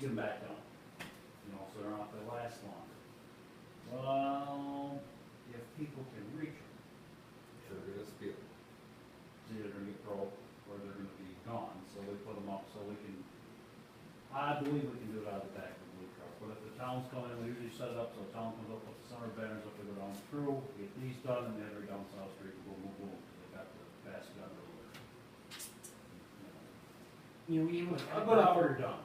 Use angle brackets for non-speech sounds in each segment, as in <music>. get them back on, you know, so they're not, they last longer. Well, if people can reach them, Sure is, beautiful. they're gonna get broke, or they're gonna be gone, so we put them up, so we can, I believe we can do it out of the back of the blue truck, but if the town's coming, we usually set it up, so the town comes up with the summer banners, if they go down through, get these done, and then every down South Street, boom, boom, boom, 'cause they got the basket under order. You know, we able to A have good them up hour for, done.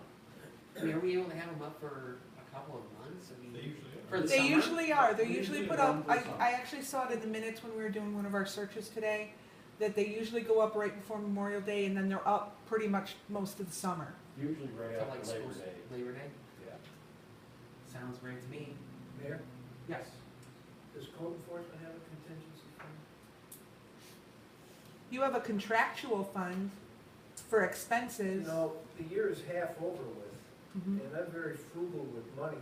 I mean, are we able to have them up for a couple of months? I They mean, usually for the They summer? usually are, they're They usually usually put are up, for I, the summer. I actually saw it in the minutes when we were doing one of our searches today, that they usually go up right before Memorial Day and then they're up pretty much most of the summer. Usually right Till like after Labor school, Day, Labor Day? yeah. Sounds great to me. Mayor, Yes. does code enforcement have a contingency fund? You have a contractual fund for You expenses. know, the year is half over with, Mhm. and I'm very frugal with money.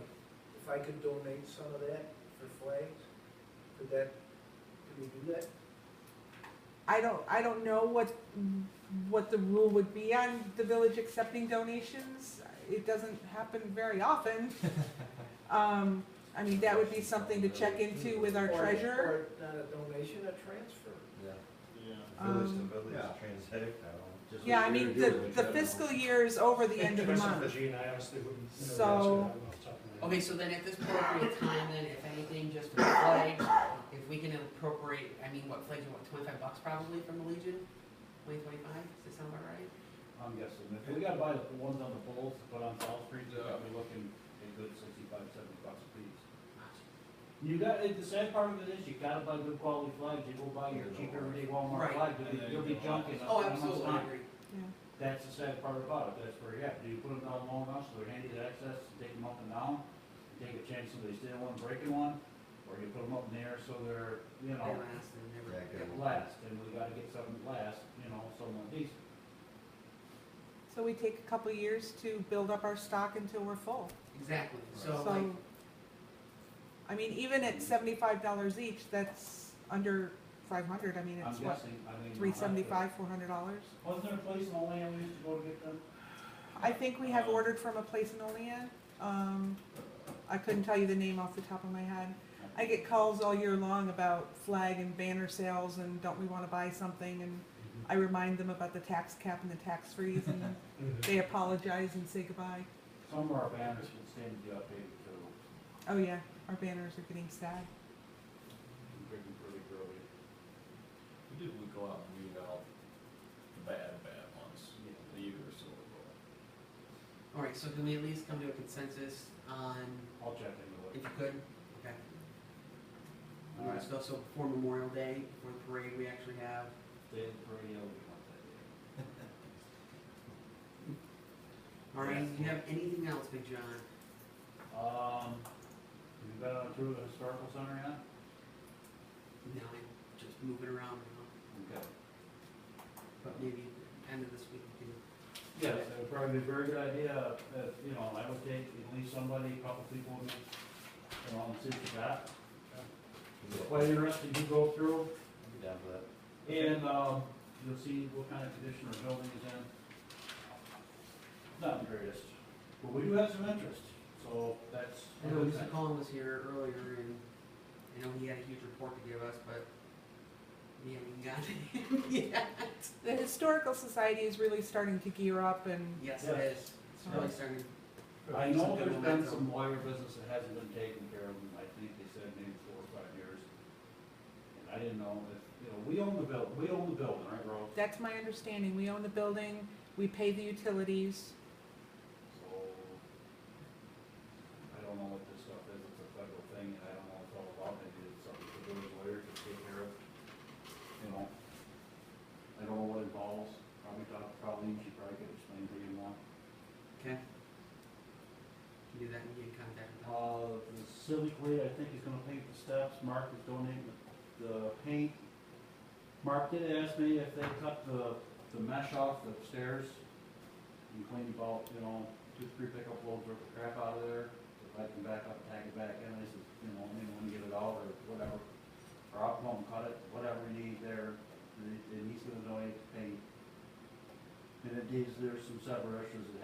If I could donate some of that for flags, could that, could we do that? I don't, I don't know what, what the rule would be on the village accepting donations. It doesn't happen very often. Um, I mean, that would be something to check into with our Or- treasurer. Or not a donation, a transfer? Yeah. Yeah, Village to village transact, Yeah, I mean, the, the fiscal year is over the end of the month. Gene, I honestly wouldn't. know the answer to So- that one off the top of my head. Okay, so then at this appropriate time, then if anything, just with flags, if we can appropriate, I mean, what flags, what, twenty-five bucks probably from the Legion? Twenty, twenty-five, does that sound about right? I'm guessing, if we gotta buy the ones on the poles to put on South Street, they're probably looking a good sixty-five, seventy bucks a piece. You got, it- the sad part of it is, you gotta buy good quality flags, you go buy your cheap everyday Walmart Right. flag, you'll be, you'll be junking. Oh, absolutely, I agree. That's the sad part about it, that's where, yeah, do you put them down long enough so they're handy to access, to take them up and down? Take a chance somebody's stealing one, breaking one, or you put them up in the air so they're, you They know, last and never, Yeah, good. last, and we gotta get something that lasts, you know, someone decent. So we take a couple years to build up our stock until we're full. exactly, so like, So, I mean, even at seventy-five dollars each, that's under five hundred. I mean, I'm it's what, guessing, I mean. three seventy-five, four hundred dollars? Wasn't there a place in Olean we used to go to get them? I think we have ordered from a place in Olean. Um, I couldn't tell you the name off the top of my head. I get calls all year long about flag and banner sales and don't we wanna buy something and I remind them about the tax cap and the tax freeze and they apologize and say goodbye. Some of our banners can stand to be updated too, Oh yeah, our banners are getting sad. pretty, pretty early. we did, we go out and weed out the bad, bad ones, a year or so ago. alright, so can we at least come to a consensus on, I'll check if you into it. could, okay? All right, so, so before Memorial Day, before the parade, we actually have, Did pretty early on that day. all right, do you have anything else, Big John? Um, have you been on a tour of the historical center yet? No, I'm just moving around now, Okay. but maybe end of this week, we can Yes, that would probably be a very good idea, uh, you know, I would take at least somebody, a couple people, with me, you know, and see what you got. Quite interested, you go through, I'd be down for that. And, um, you'll see what kind of condition our building is in. Not the greatest, but we do have some interest, so that's. I know Mr. Collins was here earlier and I know he had a huge report to give us, but we haven't gotten <laughs> it yet. The Historical Society is really starting to gear up and Yes, Yeah. it is. It's really starting. I know there's been some lawyer business that hasn't been taken care of, and I think they said maybe four or five years. And I didn't know if, you know, we own the buil, we own the building, right, Rob? that's my understanding. We own the building, we pay the utilities. So, I don't know what this stuff is, it's a federal thing, and I don't know what it's all about, maybe it's something the village lawyer can take care of, you know? I don't know what it involves, probably talk, probably, she probably could explain to you more. Okay. Can do that and get in contact with them. Uh, the Civic Way, I think is gonna paint the steps, Mark is donating the, the paint. Mark did ask me if they cut the, the mesh off the stairs and cleaned about, you know, two, three pickup loads worth of crap out of there. If I can back up and tag it back in, I said, you know, maybe when you get it out or whatever, or I'll come and cut it, whatever you need there, and he's gonna donate the paint. And it is, there's some separate issues that